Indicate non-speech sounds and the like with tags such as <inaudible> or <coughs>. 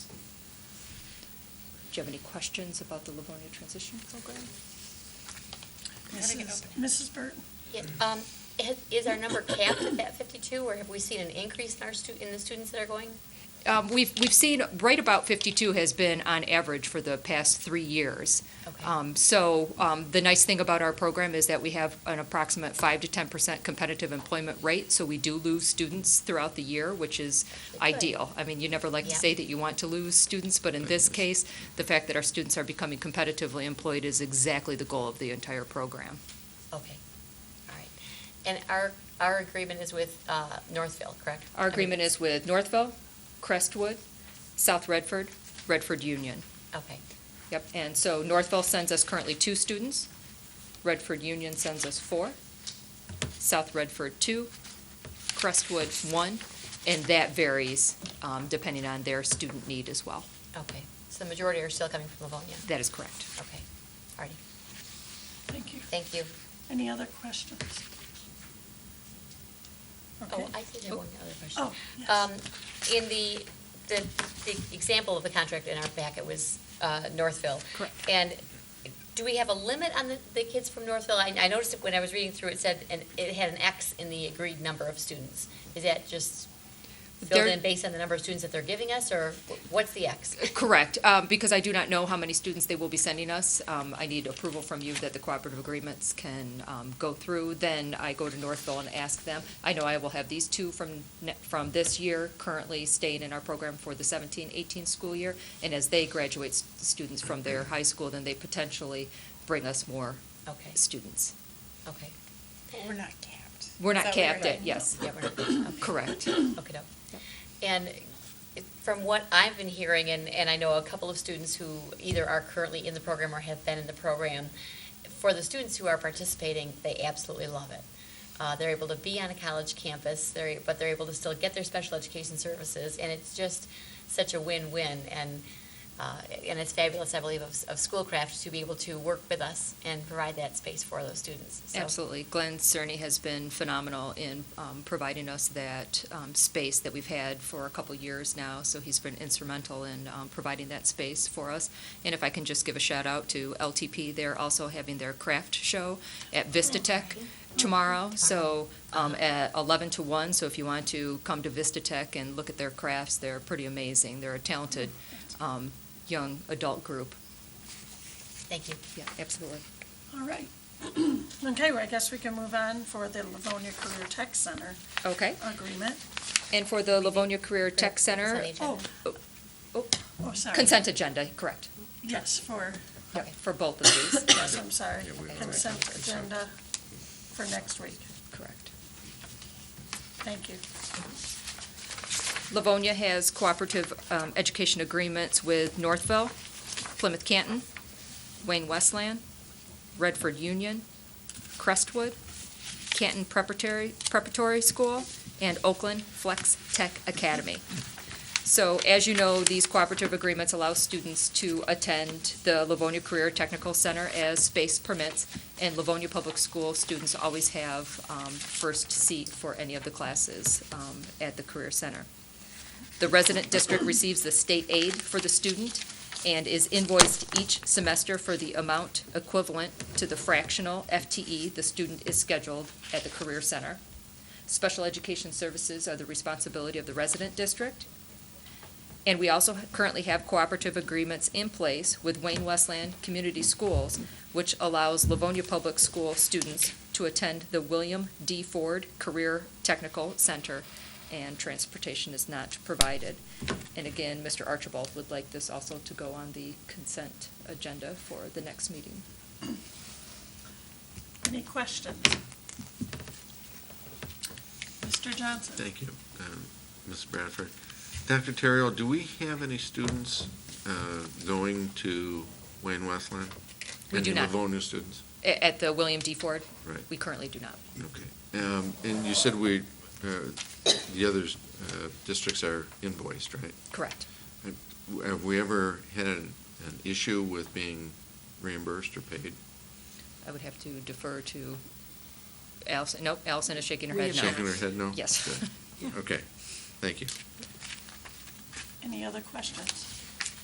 Do you have any questions about the Livonia Transition Program? Gotta get Mrs. Mrs. Burton? Yeah, um, ha- Is our number capped at that 52, or have we seen an increase in our stu, in the students that are going? Um, we've, we've seen right about 52 has been on average for the past three years. Okay. Um, so um, the nice thing about our program is that we have an approximate 5 to 10% competitive employment rate. So we do lose students throughout the year, which is Good. ideal. I mean, you never like to Yeah. say that you want to lose students, but in this case, the fact that our students are becoming competitively employed is exactly the goal of the entire program. Okay, all right. And our, our agreement is with uh, Northville, correct? Our agreement is with Northville, Crestwood, South Redford, Redford Union. Okay, Yep, and so Northville sends us currently two students, Redford Union sends us four, South Redford two, Crestwood one, and that varies um, depending on their student need as well. okay. So the majority are still coming from Livonia? That is correct. Okay, all righty, Thank you. thank you. Any other questions? Okay. Oh, I did have one other question. Oh, yes. Um, In the, the, the example of the contract in our packet was uh, Northville. Correct. And do we have a limit on the, the kids from Northville? I, I noticed that when I was reading through, it said, and it had an X in the agreed number of students. Is that just filled There- in based on the number of students that they're giving us, or what's the X? Correct, um, because I do not know how many students they will be sending us. Um, I need approval from you that the cooperative agreements can um, go through. Then I go to Northville and ask them. I know I will have these two from, ne- from this year currently staying in our program for the 17, 18 school year. And as they graduate s- students from their high school, then they potentially bring us more Okay, students. okay. But we're not capped. We're Is not that what you're capped at, saying? yes, Yeah, we're not- okay. correct. Okay, doke. And it- from what I've been hearing, and, and I know a couple of students who either are currently in the program or have been in the program, for the students who are participating, they absolutely love it. Uh, they're able to be on a college campus, they're, but they're able to still get their special education services, and it's just such a win-win, and, uh, and it's fabulous, I believe, of, of Schoolcraft to be able to work with us and provide that space for those students. So- Absolutely. Glenn Cerny has been phenomenal in um, providing us that um, space that we've had for a couple years now. So he's been instrumental in um, providing that space for us. And if I can just give a shout out to LTP, they're also having their craft show at Vista Tech tomorrow. So um, at 11 to 1, so if you want to come to Vista Tech and look at their crafts, they're pretty amazing. They're a talented um, young adult group. Thank you. Yeah, absolutely. All right. <clears throat> Okay, well, I guess we can move on for the Livonia Career Tech Center Okay. agreement. And for the Livonia Career Tech Center, Consent agenda. Oh, Oh, oh, sorry. Consent agenda, correct. Yes, for, Yep, For both of these, <coughs> yes, I'm sorry. Yeah, we already Consent have consent. agenda for next week. correct. Thank you. Livonia has cooperative um, education agreements with Northville, Plymouth Canton, Wayne Westland, Redford Union, Crestwood, Canton Preparatory, Preparatory School, and Oakland Flex Tech Academy. So as you know, these cooperative agreements allow students to attend the Livonia Career Technical Center as space permits, and Livonia Public School students always have um, first seat for any of the classes um, at the Career Center. The resident district receives the state aid for the student and is invoiced each semester for the amount equivalent to the fractional FTE the student is scheduled at the Career Center. Special education services are the responsibility of the resident district. And we also currently have cooperative agreements in place with Wayne Westland Community Schools, which allows Livonia Public School students to attend the William D. Ford Career Technical Center, and transportation is not provided. And again, Mr. Archibald would like this also to go on the consent agenda for the next meeting. Any questions? Mr. Johnson? Thank you, um, Ms. Bradford. Dr. Terrell, do we have any students uh, going to Wayne Westland? We do not. Any Livonia students? A- At the William D. Ford? Right. We currently do not. Okay. Um, And you said we, uh, the other uh, districts are invoiced, right? Correct. Have we ever had an an issue with being reimbursed or paid? I would have to defer to Allison, nope, Allison is shaking her head no. Shaking her head no? <laughs> Yes. Good. Okay, thank you. Any other questions?